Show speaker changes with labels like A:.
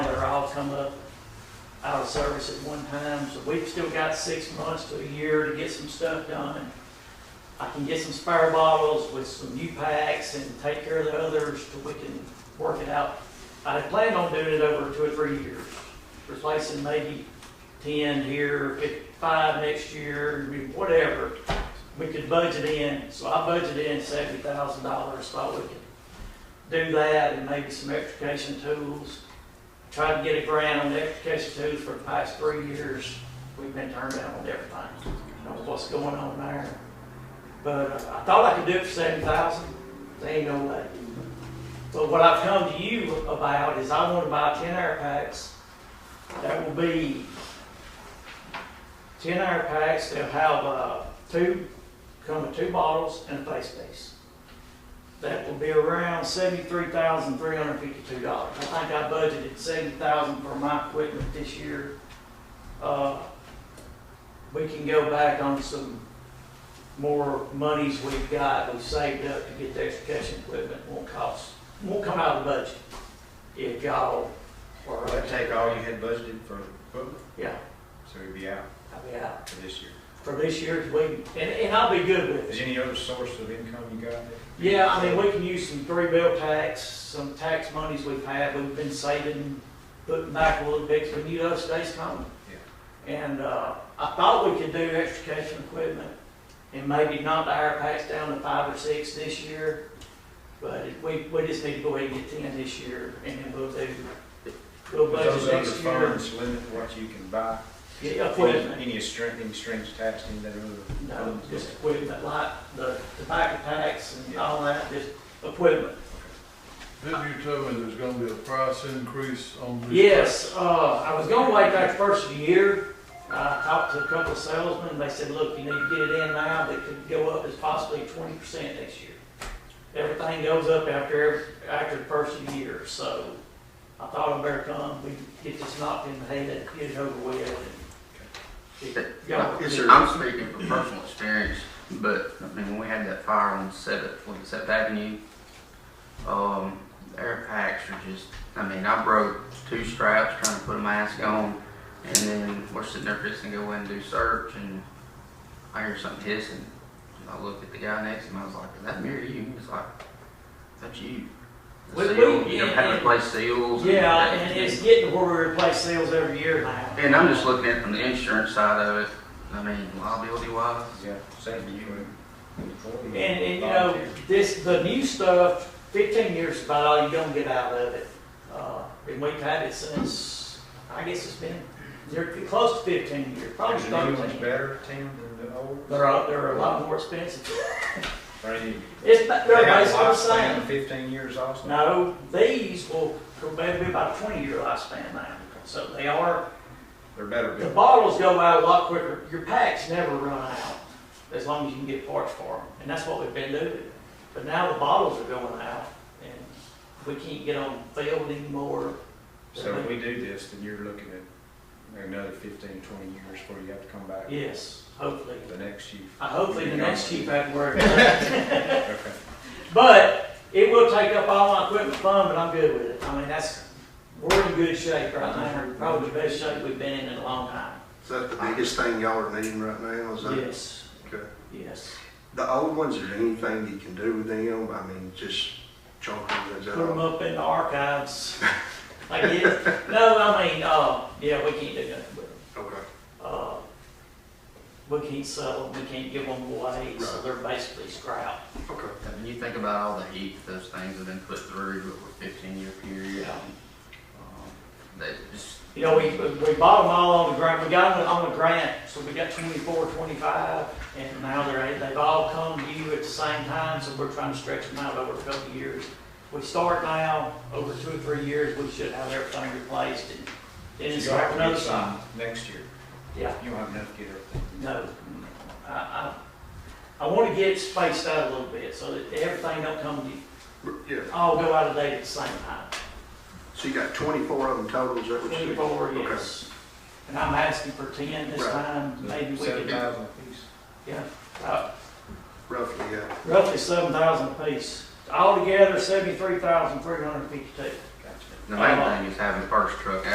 A: come up out of service at one time, so we've still got six months to a year to get some stuff done. And I can get some spare bottles with some new packs and take care of the others till we can work it out. I had planned on doing it over two or three years, replacing maybe ten here, fif- five next year, I mean, whatever. We could budget in, so I budgeted in seventy thousand dollars, thought we could do that and maybe some extrication tools. Tried to get a grant on the extrication tools for the past three years, we've been turned down on everything. I don't know what's going on there. But uh, I thought I could do it for seven thousand, there ain't no way. But what I've come to you about is I wanna buy ten air packs. That will be ten air packs, they'll have, uh, two, come with two bottles and a face piece. That will be around seventy-three thousand, three hundred fifty-two dollars. I think I budgeted seventy thousand for my equipment this year. Uh, we can go back on some more monies we've got, we've saved up to get the extrication equipment, won't cost, won't come out of the budget. If y'all
B: Well,
A: are,
B: They take all you had budgeted for equipment,
A: yeah,
B: so you'd be out
A: I'll be out
B: for this year.
A: for this year's weed, and, and I'll be good with
B: Is
A: it.
B: any other source of income you got? that-
A: Yeah, I mean, we can use some three bill tax, some tax monies we've had, we've been saving, putting back a little bit, 'cause we knew those days coming. And, uh, I thought we could do extrication equipment and maybe knock the air packs down to five or six this year. But it- we, we just need to go ahead and get ten this year and then we'll do, we'll
B: But Those
A: budget
B: other
A: next year.
B: funds limit what you can buy?
A: Yeah, equipment.
B: Any, any string, any strings attached, any of that other?
A: No, just equipment, like the tobacco packs and
B: Yeah.
A: all that, just equipment.
C: Didn't you tell me there's gonna be a price increase on this?
A: Yes, uh, I was gonna wait that first of the year. I talked to a couple of salesmen, they said, look, you need to get it in now, that could go up as possibly twenty percent next year. Everything goes up after, after the first of the year, so I thought I better come, we get this knocked in the head, get it over with. and get- y'all-
D: I'm speaking from personal experience, but I mean, when we had that fire on Seventh, was it Seventh Avenue? Um, the air packs are just, I mean, I broke two straps trying to put a mask on, and then we're sitting there fixing to go in and do search, and I hear something hissing. And I look at the guy next to me, I was like, is that mirror you? He's like, that's you.
A: We-
D: The seal,
A: we-
D: you know, having to
A: and-
D: place seals. and
A: Yeah,
D: everything.
A: and it's getting to where we replace sales every year now.
D: And I'm just looking at it from the insurance side of it, I mean, liability wise,
B: Yeah, same to you and- and. for you.
A: And, and you know, this, the new stuff, fifteen years is about all you're gonna get out of it. Uh, and we've had it since, I guess it's been, they're close to fifteen years, probably
B: Is the new one's
A: thirteen.
B: better, Tim, than the old?
A: They're, a- they're a lot more expensive.
B: Or any-
A: It's, ba- they're
B: they have a
A: basically the
B: lifespan of
A: same.
B: Fifteen years also?
A: No, these will probably be about a twenty-year lifespan now. So they are,
B: They're better
A: the
B: built.
A: bottles go out a lot quicker. Your packs never run out, as long as you can get parts for them. And that's what we've been doing. But now the bottles are going out, and we can't get on field anymore.
B: So if we do this, then you're looking at another fifteen, twenty years before you have to come back.
A: Yes, hopefully.
B: The next chief.
A: I Hopefully the next chief had to worry.
B: Okay.
A: But it will take up all my equipment fund, but I'm good with it. I mean, that's, we're in good shape right now. Probably the best shape we've been in in a long time.
E: Is that the biggest thing y'all are needing right now? Is that
A: Yes,
E: okay?
A: yes.
E: The old ones, is there anything you can do with them? I mean, just chunk them as
A: Put them
E: out.
A: up in the archives. I guess. No, I mean, uh, yeah, we can't do nothing with them.
E: Okay.
A: Uh, we can't sell them, we can't give them away, so
E: Right.
A: they're basically scrap.
E: Okay.
D: I mean, you think about all the heat that those things have been put through over a fifteen year period.
A: Yeah.
D: um, They just,
A: You know, we, we bought them all on the grant, we got them on the grant, so we got 24, 25, and now they're, they've all come to you at the same time, so we're trying to stretch them out over a couple of years. We start now, over two or three years, we should have everything replaced, and then it's
B: You'll have
A: like
B: to
A: another
B: get
A: sign.
B: some next year.
A: Yeah.
B: You don't have enough to get everything.
A: No, I, I, I wanna get it spaced out a little bit, so that everything don't come,
E: Yeah.
A: to all go out of date at the same time.
E: So you got 24 of them total, is that what you said?
A: Twenty-four,
E: Okay.
A: yes. And I'm asking for ten this
E: Right. Mm-hmm.
A: time, maybe we
B: Seven
A: could,
B: thousand apiece.
A: yeah, uh,
E: Roughly, yeah.
A: roughly seven thousand apiece. Altogether, seventy-three thousand, three hundred fifty-two.
B: Gotcha.
D: the main
A: Uh,
D: thing is having the first truck